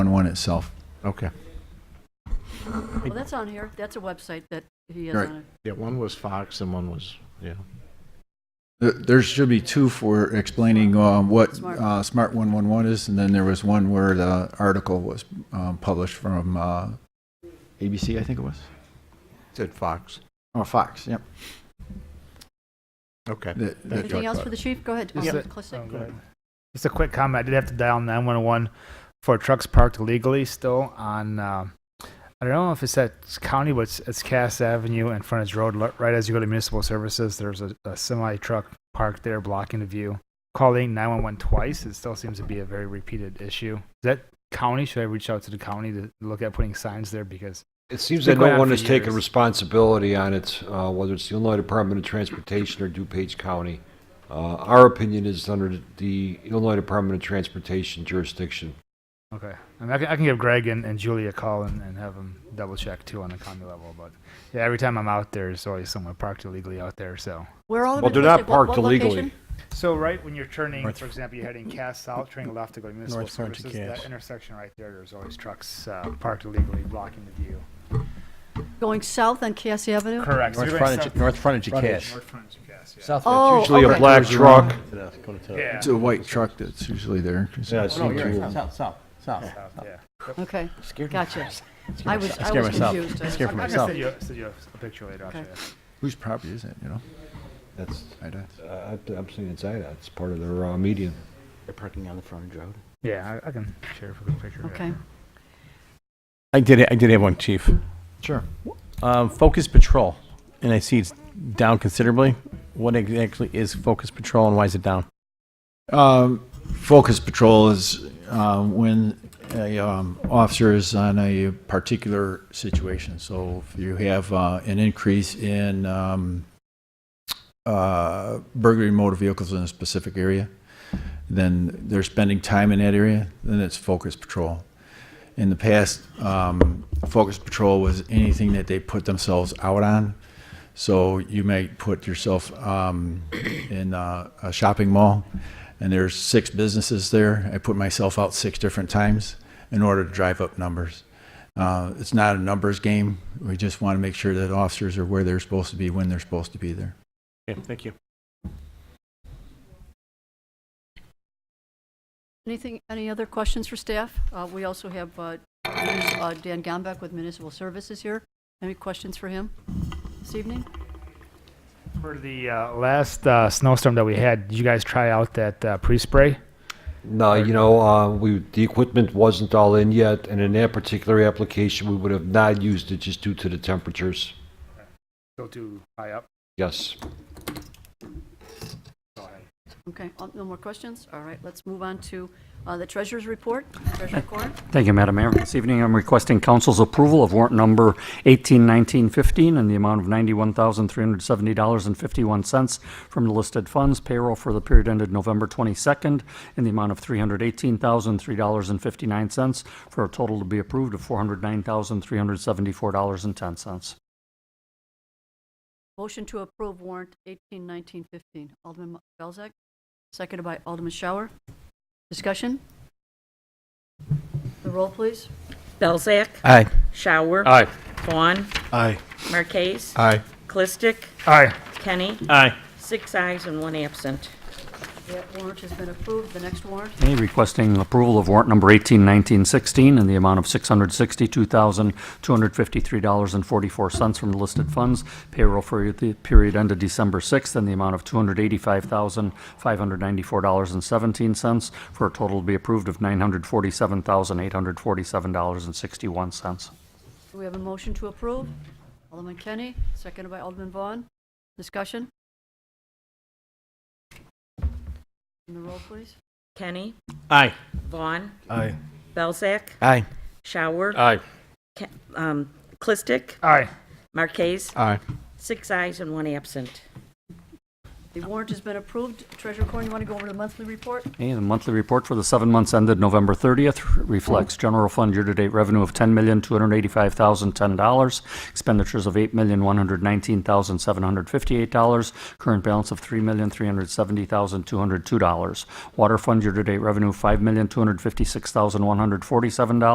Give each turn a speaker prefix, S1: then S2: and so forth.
S1: one itself.
S2: Okay.
S3: Well, that's on here. That's a website that he has
S1: Right.
S3: on it.
S2: Yeah, one was Fox and one was, yeah.
S1: There- There should be two for explaining um, what
S3: Smart.
S1: uh, Smart 111 is, and then there was one where the article was um, published from uh, ABC, I think it was.
S2: Said Fox.
S1: Oh, Fox, yep.
S2: Okay.
S1: That- that-
S3: Anything else for the chief? Go ahead.
S4: Is
S3: Councilman
S4: it-
S3: Klesick.
S4: Oh, go ahead. Just a quick comment. I did have to dial 911 for trucks parked illegally still on, uh, I don't know if it's at county, but it's, it's Cass Avenue and Frontage Road. li- Right as you go to municipal services, there's a, a semi truck parked there blocking the view. Calling 911 twice, it still seems to be a very repeated issue. Is that county? Should I reach out to the county to look at putting signs there? Because
S5: It seems
S4: Been
S5: that
S4: going
S5: no
S4: on
S5: one
S4: for
S5: has taken
S4: years.
S5: responsibility on it, uh, whether it's the Illinois Department of Transportation or DuPage County. Uh, Our opinion is under the Illinois Department of Transportation jurisdiction.
S4: Okay. I, mean, I, can, I can give Greg and, and Julie a call and, and have them double check too on the county level. But yeah, every time I'm out there, there's always someone parked illegally out there. So,
S3: Where all of
S5: Well,
S3: it
S5: they're
S3: was,
S5: not
S3: at what-
S5: parked
S3: what
S5: illegally.
S3: location?
S4: so right when you're turning,
S1: North-
S4: for example, you're heading Cass South, turning left to go to municipal
S1: North Front to
S4: services,
S1: Cass.
S4: that intersection right there, there's always trucks uh, parked illegally blocking the view.
S3: Going south on Cassie Avenue?
S4: Correct.
S6: North frontage, north frontage of Cass.
S4: North frontage of Cass, yeah.
S6: South
S3: Oh,
S6: frontage.
S5: Usually a
S3: okay.
S5: black truck.
S4: Yeah.
S1: It's a white truck that's usually there.
S2: Yeah,
S6: Oh, no, you're right. South, south, south.
S4: South, yeah.
S3: Okay,
S6: Scared me.
S3: gotcha.
S6: Scared
S3: I was,
S6: myself.
S3: I
S6: Scared
S3: was
S6: myself.
S3: confused. I was-
S6: Scared for
S4: I can
S6: myself.
S4: send you, a- send you a- a picture later. I'll show
S3: Okay.
S4: you.
S1: Whose property is it, you know?
S5: That's,
S1: I'd ask.
S5: uh, I- I'm saying it's IDOT, it's part of their uh, median.
S6: They're parking on the frontage road.
S4: Yeah, I, I can share a quick picture.
S3: Okay.
S7: I did, I did have one, chief.
S1: Sure.
S7: Um, Focus Patrol, and I see it's down considerably. What exactly is Focus Patrol and why is it down?
S1: Um, Focus patrol is uh, when a um, officer is on a particular situation. So if you have uh, an increase in um, uh, burglary motor vehicles in a specific area, then they're spending time in that area, then it's focus patrol. In the past, um, focus patrol was anything that they put themselves out on. So you may put yourself um, in uh, a shopping mall, and there's six businesses there. I put myself out six different times in order to drive up numbers. Uh, it's not a numbers game. We just want to make sure that officers are where they're supposed to be when they're supposed to be there.
S7: Okay, thank you.
S3: Anything, any other questions for staff? Uh, We also have uh, uh, Dan Gombeck with Municipal Services here. Any questions for him this evening?
S4: For the uh, last uh, snowstorm that we had, did you guys try out that uh, pre-spray?
S5: No, you know, uh, we, the equipment wasn't all in yet, and in that particular application, we would have not used it just due to the temperatures.
S4: Go too high up.
S5: Yes.
S4: Go ahead.
S3: Okay, uh, no more questions? All right, let's move on to uh, the treasurer's report, treasurer Corn.
S8: Thank you, Madam Mayor. This evening, I'm requesting council's approval of warrant number 181915 in the amount of $91,370.51 from the listed funds payroll for the period ended November 22nd in the amount of $318,003.59 for a total to be approved of $409,374.10.
S3: Motion to approve warrant 18, 19, 15. Alderman Belzak, seconded by Alderman Shower. Discussion? The roll, please.
S9: Belzak.
S7: Aye.
S9: Shower.
S8: Aye.
S9: Vaughn.
S7: Aye.
S9: Marquez.
S7: Aye.
S9: Clistic.
S4: Aye.
S9: Kenny.
S7: Aye.
S9: Six ayes and one absent.
S3: That warrant has been approved. The next warrant,
S8: Okay, requesting approval of warrant number 181916 in the amount of $662,253.44 from the listed funds. Payroll for the period ended December 6th in the amount of $285,594.17 for a total to be approved of $947,847.61.
S3: do we have a motion to approve? Alderman Kenny, seconded by Alderman Vaughn. Discussion? And the roll, please.
S9: Kenny.
S7: Aye.
S9: Vaughn.
S7: Aye.
S9: Belzak.
S7: Aye.
S9: Shower.
S7: Aye.
S9: Ke- um, Clistic.
S4: Aye.
S9: Marquez.
S7: Aye.
S9: Six ayes and one absent.
S3: The warrant has been approved. Treasurer Corn, you want to go over the monthly report?
S8: Okay, the monthly report for the seven months ended November 30th reflects general fund year-to-date revenue of $10,285,010, expenditures of $8,119,758, current balance of $3,370,202. Water fund year-to-date revenue, $5,256,147.